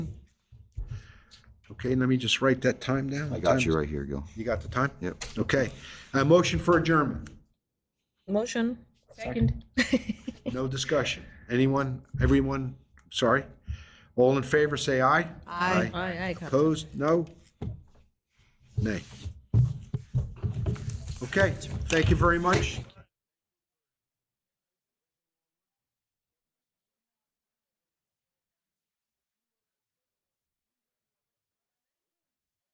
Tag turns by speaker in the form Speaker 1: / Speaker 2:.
Speaker 1: Okay, let me just write that time down.
Speaker 2: I got you right here, Gil.
Speaker 1: You got the time?
Speaker 2: Yep.
Speaker 1: Okay. Uh, motion for adjournment.
Speaker 3: Motion.
Speaker 4: Second.
Speaker 1: No discussion. Anyone, everyone, sorry? All in favor, say aye.
Speaker 3: Aye, aye, Captain.
Speaker 1: Opposed? No? Nay. Okay, thank you very much.